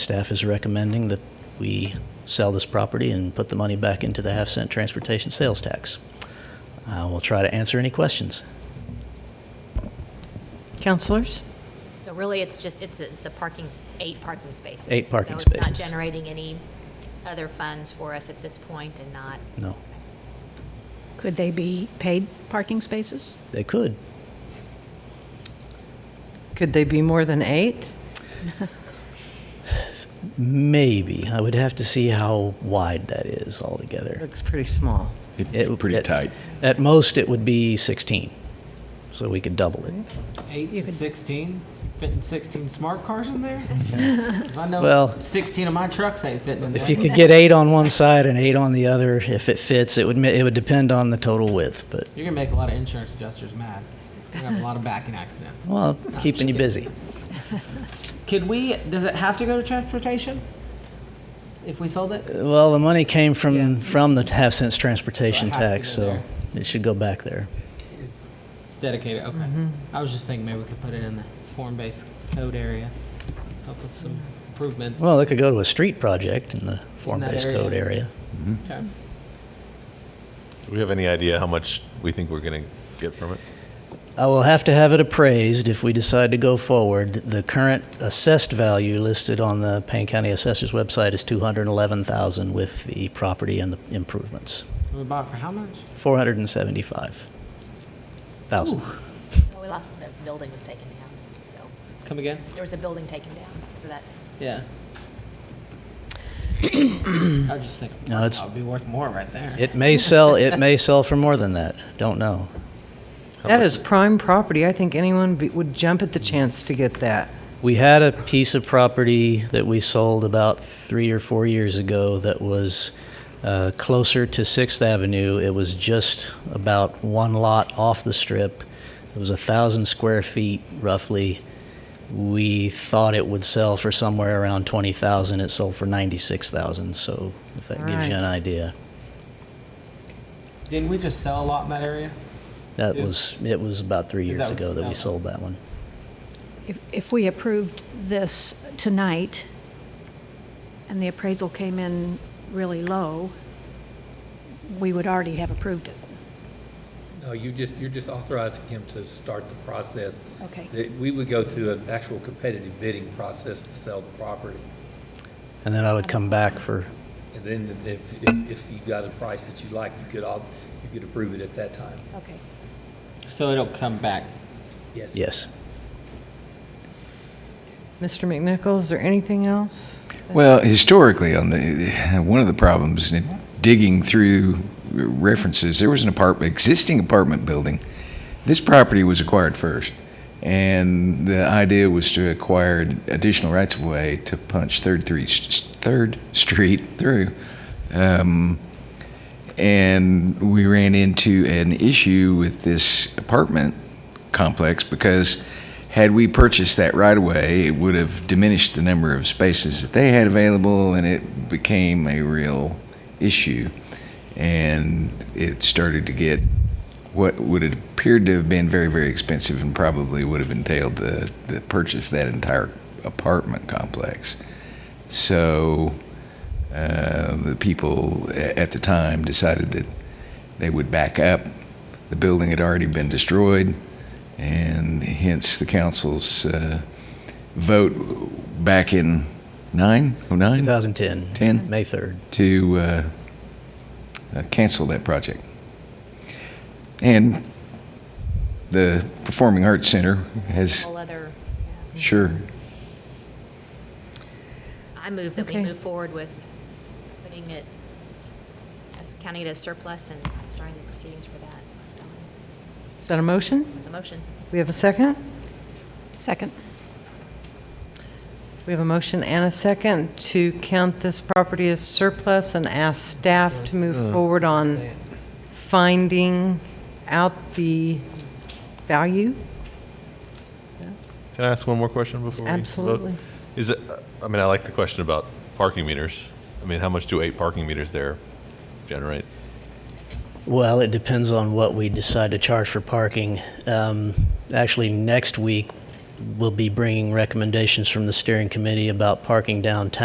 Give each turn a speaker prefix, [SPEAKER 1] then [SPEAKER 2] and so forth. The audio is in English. [SPEAKER 1] Staff is recommending that we sell this property and put the money back into the half-cent transportation sales tax. Uh, We'll try to answer any questions.
[SPEAKER 2] Counselors?
[SPEAKER 3] So really, it's just, it's, a- it's a parking, s- eight parking spaces.
[SPEAKER 1] Eight parking
[SPEAKER 3] So it's
[SPEAKER 1] spaces.
[SPEAKER 3] not generating any other funds for us at this point and not,
[SPEAKER 1] No,
[SPEAKER 4] Could they be paid parking spaces?
[SPEAKER 1] they could.
[SPEAKER 2] Could they be more than eight?
[SPEAKER 1] Maybe. I would have to see how wide that is altogether.
[SPEAKER 2] Looks pretty small.
[SPEAKER 5] It'd
[SPEAKER 1] It-
[SPEAKER 5] be pretty
[SPEAKER 1] at-
[SPEAKER 5] tight.
[SPEAKER 1] At most, it would be 16, so we could double it.
[SPEAKER 6] Eight to sixteen, fitting sixteen smart cars in there? If I know
[SPEAKER 1] Well-
[SPEAKER 6] sixteen of my trucks ain't fitting in there.
[SPEAKER 1] If you could get eight on one side and eight on the other, if it fits, it would, ma- it would depend on the total width, but,
[SPEAKER 6] You're gonna make a lot of insurance adjusters mad. We're gonna have a lot of backing accidents.
[SPEAKER 1] well, keeping you busy.
[SPEAKER 6] Could we, does it have to go to transportation? If we sold it?
[SPEAKER 1] Well, the money came from, from the half cents transportation
[SPEAKER 6] So it has to
[SPEAKER 1] tax,
[SPEAKER 6] go
[SPEAKER 1] so it should go back there.
[SPEAKER 6] It's dedicated, okay. I was just thinking maybe we could put it in the form-based code area, help with some improvements.
[SPEAKER 1] Well, it could go to a street project in the form-based
[SPEAKER 6] area.
[SPEAKER 1] code area.
[SPEAKER 6] Okay.
[SPEAKER 7] Do we have any idea how much we think we're going to get from it?
[SPEAKER 1] I will have to have it appraised if we decide to go forward. The current assessed value listed on the Payne County Assessor's website is 211,000 with the property and the improvements.
[SPEAKER 6] We bought for how much?
[SPEAKER 1] 475,000.
[SPEAKER 3] well, we lost, the building was taken down, so,
[SPEAKER 6] Come again?
[SPEAKER 3] there was a building taken down, so that,
[SPEAKER 6] Yeah. I was just thinking,
[SPEAKER 1] No,
[SPEAKER 6] that
[SPEAKER 1] it's-
[SPEAKER 6] would be worth more right there.
[SPEAKER 1] It may sell, it may sell for more than that. Don't know.
[SPEAKER 2] That is prime property. I think anyone be- would jump at the chance to get that.
[SPEAKER 1] We had a piece of property that we sold about three or four years ago that was uh, closer to Sixth Avenue. It was just about one lot off the strip. It was a thousand square feet roughly. We thought it would sell for somewhere around twenty thousand. It sold for ninety-six thousand. So if that gives you
[SPEAKER 2] Alright.
[SPEAKER 1] an idea,
[SPEAKER 6] Didn't we just sell a lot in that area?
[SPEAKER 1] that
[SPEAKER 6] Yeah.
[SPEAKER 1] was it was about three
[SPEAKER 6] Is
[SPEAKER 1] years
[SPEAKER 6] that-
[SPEAKER 1] ago that we
[SPEAKER 6] okay.
[SPEAKER 1] sold that one.
[SPEAKER 4] If, if we approved this tonight and the appraisal came in really low, we would already have approved it.
[SPEAKER 8] No, you just, you're just authorizing him to start the process.
[SPEAKER 4] Okay.
[SPEAKER 8] That We would go through an actual competitive bidding process to sell the property.
[SPEAKER 1] And then I would come back for
[SPEAKER 8] And then if, if if you got a price that you like, you could, au- you could approve it at that time.
[SPEAKER 4] Okay.
[SPEAKER 6] So it'll come back.
[SPEAKER 8] Yes.
[SPEAKER 1] yes.
[SPEAKER 2] Mr. McNichol, is there anything else?
[SPEAKER 5] Well, historically, on the one of the problems in digging through references, there was an apartment, existing apartment building. This property was acquired first, and the idea was to acquire additional rights of way to punch Third, three, third Street through. Um, and we ran into an issue with this apartment complex because had we purchased that right away, it would have diminished the number of spaces that they had available, and it became a real issue. And it started to get what would have appeared to have been very, very expensive and probably would have entailed the, the purchase of that entire apartment complex. So uh, the people a- at the time decided that they would back up. The building had already been destroyed, and hence the council's uh, vote back in oh 9, 09?
[SPEAKER 1] 2010.
[SPEAKER 5] 10.
[SPEAKER 1] May 3rd.
[SPEAKER 5] to uh, uh, cancel that project. And the Performing Arts Center has,
[SPEAKER 3] whole other, yeah.
[SPEAKER 5] sure,
[SPEAKER 3] I move that we
[SPEAKER 2] Okay.
[SPEAKER 3] move forward with putting it, as counting it as surplus and starting the proceedings for that, so,
[SPEAKER 2] Is that a motion?
[SPEAKER 3] it's a motion.
[SPEAKER 2] We have a second?
[SPEAKER 4] Second.
[SPEAKER 2] We have a motion and a second to count this property as surplus and ask staff to move forward on finding out the value?
[SPEAKER 7] Can I ask one more question before we vote?
[SPEAKER 2] Absolutely.
[SPEAKER 7] Is it, I mean, I like the question about parking meters. I mean, how much do eight parking meters there generate?
[SPEAKER 1] Well, it depends on what we decide to charge for parking. Um, Actually, next week, will be bringing recommendations from the steering committee about parking downtown.